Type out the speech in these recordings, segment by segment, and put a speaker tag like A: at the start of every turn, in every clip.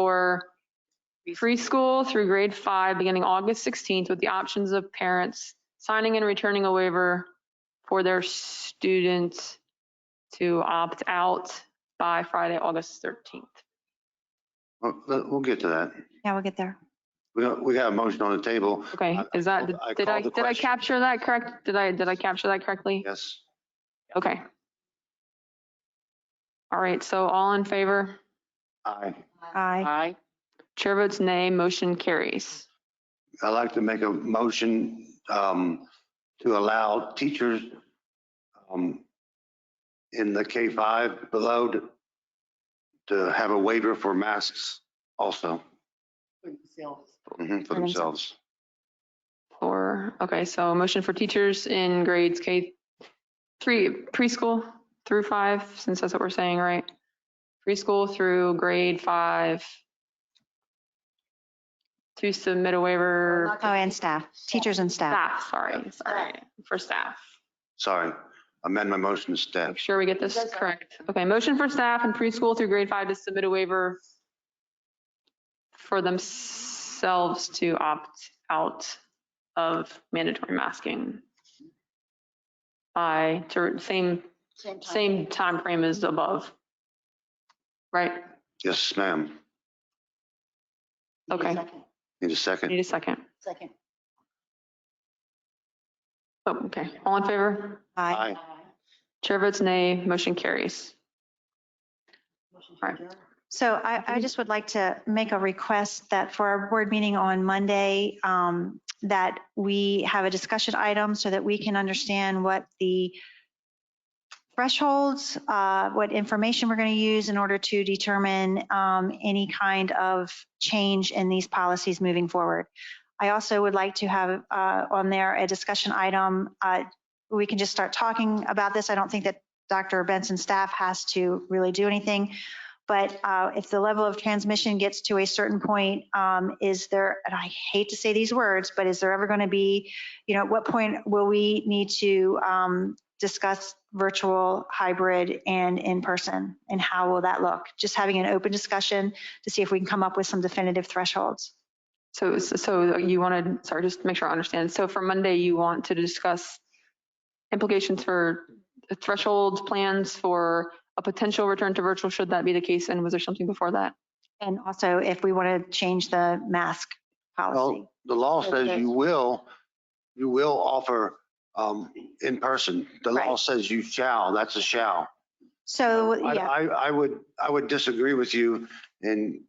A: for free school through grade five, beginning August 16th, with the options of parents signing and returning a waiver for their students to opt out by Friday, August 13th.
B: Well, let- We'll get to that.
C: Yeah, we'll get there.
B: We got, we got a motion on the table.
A: Okay,
B: I-
A: is that,
B: I
A: did I,
B: called the
A: did I
B: question.
A: capture that correct? Did I, did I capture that correctly?
B: Yes.
A: Okay. All right, so all in favor?
B: Aye.
C: Aye.
D: Aye.
A: Chair votes nay, motion carries.
B: I'd like to make a motion um, to allow teachers um, in the K-5 below to- to have a waiver for masks also mhm, for themselves.
A: Or, okay, so motion for teachers in grades K three preschool through five, since that's what we're saying, right? Preschool through grade five. To submit a waiver,
C: Oh, and staff, teachers and staff.
A: staff, sorry, sorry, for staff.
B: Sorry, amend my motion to staff.
A: Make sure we get this correct. Okay, motion for staff in preschool through grade five to submit a waiver for themselves to opt out of mandatory masking by, to- same, same time frame as above. Right?
B: Yes, ma'am.
A: Okay.
B: Need a second?
A: Need a second.
D: Second.
A: Oh, okay. All in favor?
C: Aye.
A: Chair votes nay. Motion carries.
C: So I, I just would like to make a request that for our board meeting on Monday, um, that we have a discussion item so that we can understand what the thresholds, uh, what information we're going to use in order to determine um, any kind of change in these policies moving forward. I also would like to have uh, on there a discussion item. uh, We can just start talking about this. I don't think that Dr. Benson's staff has to really do anything. But uh, if the level of transmission gets to a certain point, um, is there, and I hate to say these words, but is there ever going to be, you know, at what point will we need to um, discuss virtual, hybrid, and in-person? And how will that look? Just having an open discussion to see if we can come up with some definitive thresholds.
A: So, so you wanted, sorry, just to make sure I understand. So for Monday, you want to discuss implications for threshold plans for a potential return to virtual, should that be the case? And was there something before that?
C: And also if we want to change the mask policy.
B: Well, the law
C: Oh,
D: Yes,
B: says
D: yes.
B: you will, you will offer um, in person. The law
C: Right.
B: says you shall, that's a shall.
C: So,
B: I,
C: yeah,
B: I I would, I would disagree with you in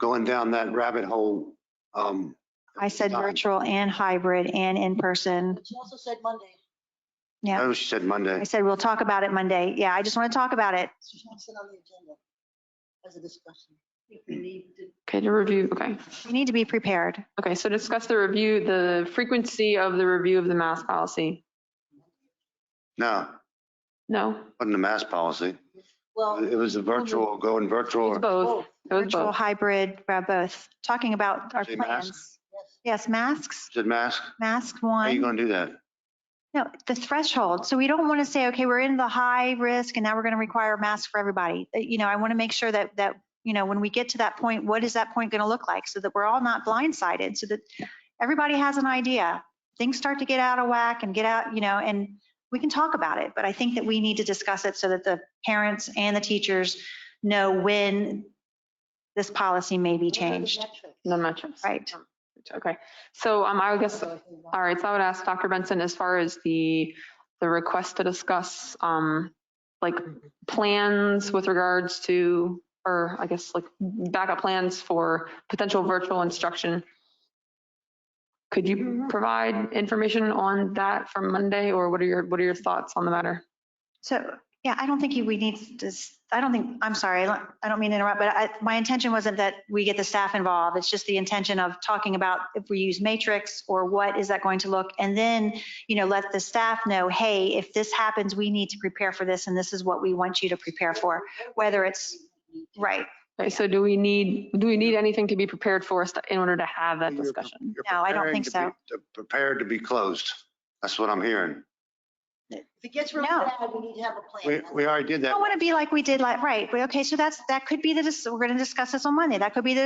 B: going down that rabbit hole. um,
C: I said
B: time.
C: virtual and hybrid and in-person.
D: She also said Monday.
C: yeah.
B: Oh, she said Monday.
C: I said, we'll talk about it Monday. Yeah, I just want to talk about it.
D: She wants it on the agenda as a discussion.
A: Okay, to review, okay.
C: We need to be prepared.
A: Okay, so discuss the review, the frequency of the review of the mask policy.
B: No,
A: No,
B: wasn't a mask policy.
D: Well,
B: It was a virtual, going
A: it
B: virtual.
A: was both. It was
C: Virtual,
A: both.
C: hybrid, uh, both, talking about our
B: Say
C: plans.
B: masks?
C: Yes, masks,
B: Said mask?
C: mask
B: How you
C: one.
B: going to do that?
C: No, the threshold. So we don't want to say, okay, we're in the high risk and now we're going to require masks for everybody. Uh, You know, I want to make sure that, that, you know, when we get to that point, what is that point going to look like? So that we're all not blindsided, so that everybody has an idea. Things start to get out of whack and get out, you know, and we can talk about it, but I think that we need to discuss it so that the parents and the teachers know when this policy may be changed.
A: No metrics.
C: Right.
A: Okay, so um, I would guess All right, so I would ask Dr. Benson, as far as the, the request to discuss, um, like plans with regards to, or I guess like backup plans for potential virtual instruction. Could you provide information on that from Monday or what are your, what are your thoughts on the matter?
C: So, yeah, I don't think you- we need to, s- I don't think, I'm sorry, I don't mean to interrupt, but I, my intention wasn't that we get the staff involved. It's just the intention of talking about if we use matrix or what is that going to look? And then, you know, let the staff know, hey, if this happens, we need to prepare for this and this is what we want you to prepare for, whether it's, right.
A: Okay, so do we need, do we need anything to be prepared for us to- in order to have that
B: You're-
A: discussion?
B: You're
C: No, I don't
B: preparing
C: think
B: to be- to- Prepared to be closed. That's what I'm hearing.
D: If it gets really
C: No.
D: bad, we need to have a
B: We,
D: plan.
B: we already did
C: I
B: that.
C: don't want to be like we did, like, right, we- okay, so that's, that could be the, dis- we're going to discuss this on Monday. That could be the